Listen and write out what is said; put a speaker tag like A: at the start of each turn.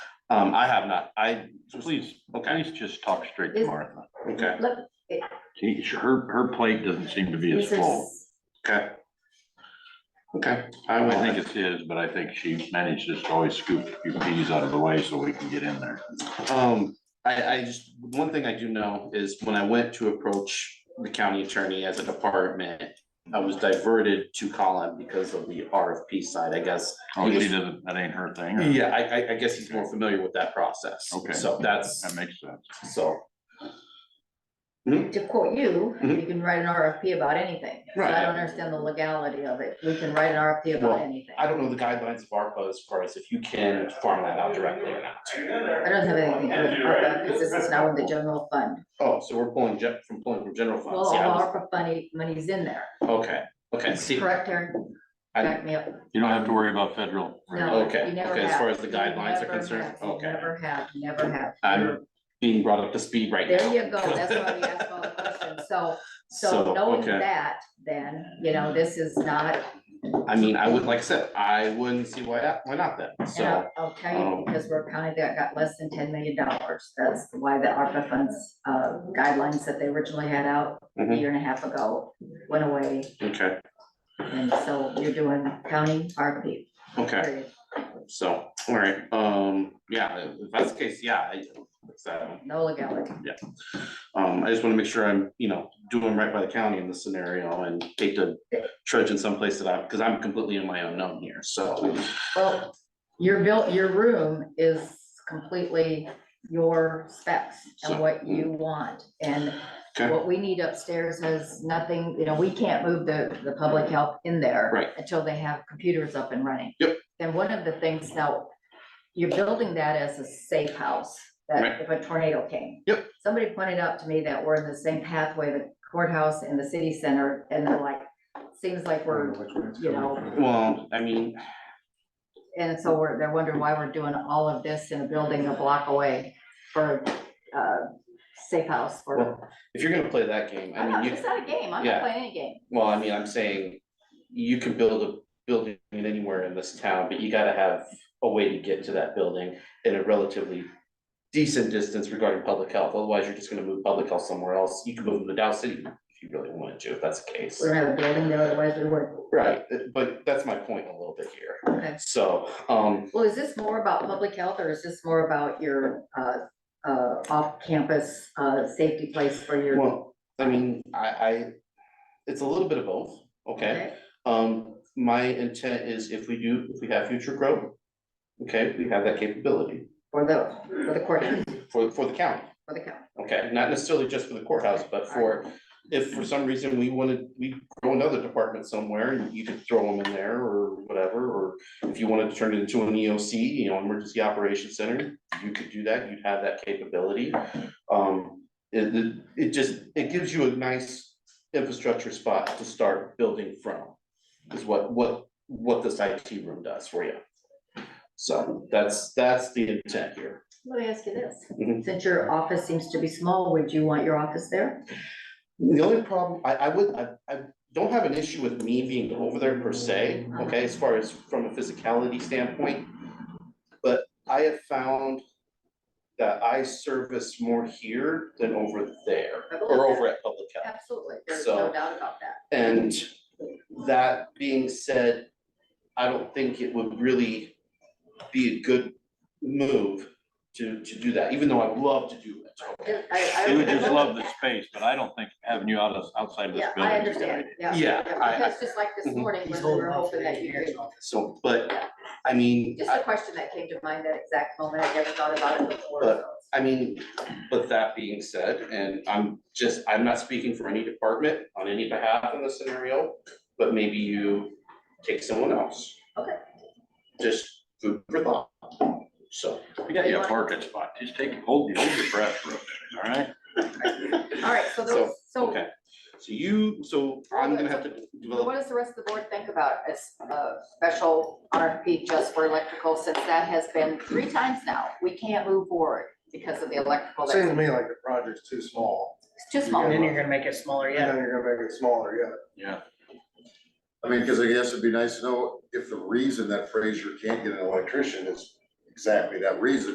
A: Um, I have not, I, please, okay,
B: Please just talk straight to
C: Is-
B: Martha.
A: okay,
C: Look,
B: She, her, her plate doesn't seem to be as
C: this
B: full.
C: is,
A: okay. Okay, I
B: I
A: will,
B: think it's his, but I think she manages to always scoop a few peas out of the way so we can get in there.
A: Um, I, I just, one thing I do know is when I went to approach the county attorney as a department, I was diverted to Colin because of the RFP side, I guess.
B: Oh, she doesn't, that ain't her thing. or-
A: Yeah, I, I, I guess he's more familiar with that process.
B: Okay.
A: So that's,
B: That makes sense.
A: so,
C: to quote you,
A: Mhm.
C: you can write an RFP about anything. So
A: Right.
C: I don't understand the legality of it. We can write an RFP
A: Well,
C: about anything.
A: I don't know the guidelines of ARPA as far as if you can farm that out directly or not.
C: I don't have anything to do with ARPA, because this is now in the general fund.
A: Oh, so we're pulling gen, from pulling from general
C: Well,
A: funds,
C: all
A: yeah, I was-
C: ARPA money, money's in there,
A: okay, okay, see,
C: correct, Aaron?
A: I-
C: Back me up.
B: You don't have to worry about federal.
C: No,
A: Okay,
C: you never
A: okay, as
C: have.
A: far as the
C: You
A: guidelines are
C: never
A: concerned,
C: have. You
A: okay.
C: Never have, you never have.
A: I'm being brought up to speed right now.
C: There you go, that's why we ask all the questions, so, so
A: So,
C: knowing
A: okay.
C: that, then, you know, this is not,
A: I mean, I would, like I said, I wouldn't see why, not- why not then,
C: and
A: so,
C: I'll, I'll tell you,
A: um,
C: because we're a county that got less than ten million dollars, that's why the ARPA funds, uh, guidelines that they originally had out a
A: Mhm.
C: year and a half ago went away,
A: okay,
C: and so you're doing county RFP,
A: okay,
C: period.
A: so, all right, um, yeah, if that's the case, yeah, I, like I said,
C: no legality.
A: um, I just wanna make sure I'm, you know, doing right by the county in this scenario and take the trudge in someplace that I'm, cause I'm completely in my unknown here, so,
C: Well, your built, your room is completely your specs and
A: So,
C: what you want. And
A: okay,
C: what we need upstairs has nothing, you know, we can't move the, the public health in there.
A: Right.
C: Until they have computers up and running.
A: Yep.
C: And one of the things now, you're building that as a safe house,
A: Right.
C: that if a tornado came.
A: Yep.
C: Somebody pointed out to me that we're in the same pathway, the courthouse and the city center, and they're like, seems like we're, you know,
A: well, I mean,
C: and so we're, they're wondering why we're doing all of this in a building a block away for, uh, safe house for.
A: well, if you're gonna play that game, I
C: I'm not,
A: mean, you.
C: it's not a game, I'm
A: yeah.
C: not playing any game.
A: Well, I mean, I'm saying you can build a building anywhere in this town, but you gotta have a way to get to that building in a relatively decent distance regarding public health, otherwise you're just gonna move public health somewhere else. You can move them to Dow City if you really wanted to, if that's the case.
C: We don't have a building there, otherwise we would.
A: Right, but that's my point a little bit here.
C: Okay.
A: So, um,
C: Well, is this more about public health or is this more about your, uh, uh, off-campus, uh, safety place for your?
A: well, I mean, I, I, it's a little bit of both, okay?
C: Okay.
A: Um, my intent is if we do, if we have future growth, okay, we have that capability
C: For the, for the courthouse,
A: for, for the county.
C: for the county.
A: Okay, not necessarily just for the courthouse, but for, if for some reason we wanted, we grow another department somewhere, and you could throw them in there or whatever, or if you wanted to turn it into an EOC, you know, Emergency Operations Center, you could do that, you'd have that capability. Um, it, it, it just, it gives you a nice infrastructure spot to start building from, is what, what, what this IT room does for you. So that's, that's the intent here.
C: Let me ask you this,
A: Mhm.
C: since your office seems to be small, would you want your office there?
A: The only problem, I, I would, I, I don't have an issue with me being over there per se, okay, as far as from a physicality standpoint. But I have found that I service more here than over there, or over at Public Health.
C: Absolutely,
A: there's no So-
C: doubt about that.
A: And that being said, I don't think it would really be a good move to, to do that, even though I love to do it, okay?
B: They would just love the space, but I don't think having you out of, outside of this
C: Yeah,
B: building.
C: I
B: is a good idea.
C: understand, yeah.
A: Yeah, I-
C: Because just like this
A: Mhm.
C: morning,
D: He's
C: when we
D: holding
C: were
D: off for
C: hoping that
D: the
C: you could
D: engineer's office.
A: So, but, I mean.
C: Just
A: I-
C: a question that came to mind that exact moment, I never thought about it before.
A: But-
C: so
A: I mean, with that being said, and I'm just, I'm not speaking for any department on any behalf in this scenario, but maybe you take someone else.
C: Okay.
A: Just food for thought. So,
B: We got you a parking spot. Just take, hold, hold your breath for a minute, all right?
C: it's- All right, so
A: so,
C: those, so
A: okay. So you, so I'm gonna have to
C: so what
A: develop,
C: does the rest of the board think about a s- a special RFP just for electrical, since that has been three times now? We can't move forward because of the electrical,
D: Seems to
C: that's
D: me like the project's too small,
C: it's too
D: you're
C: small.
E: And then you're gonna make it smaller,
D: and
E: yeah.
D: then you're gonna make it smaller, yeah.
B: Yeah.
F: I mean, because I guess it'd be nice to know if the reason that Frazier can't get an electrician is exactly that reason,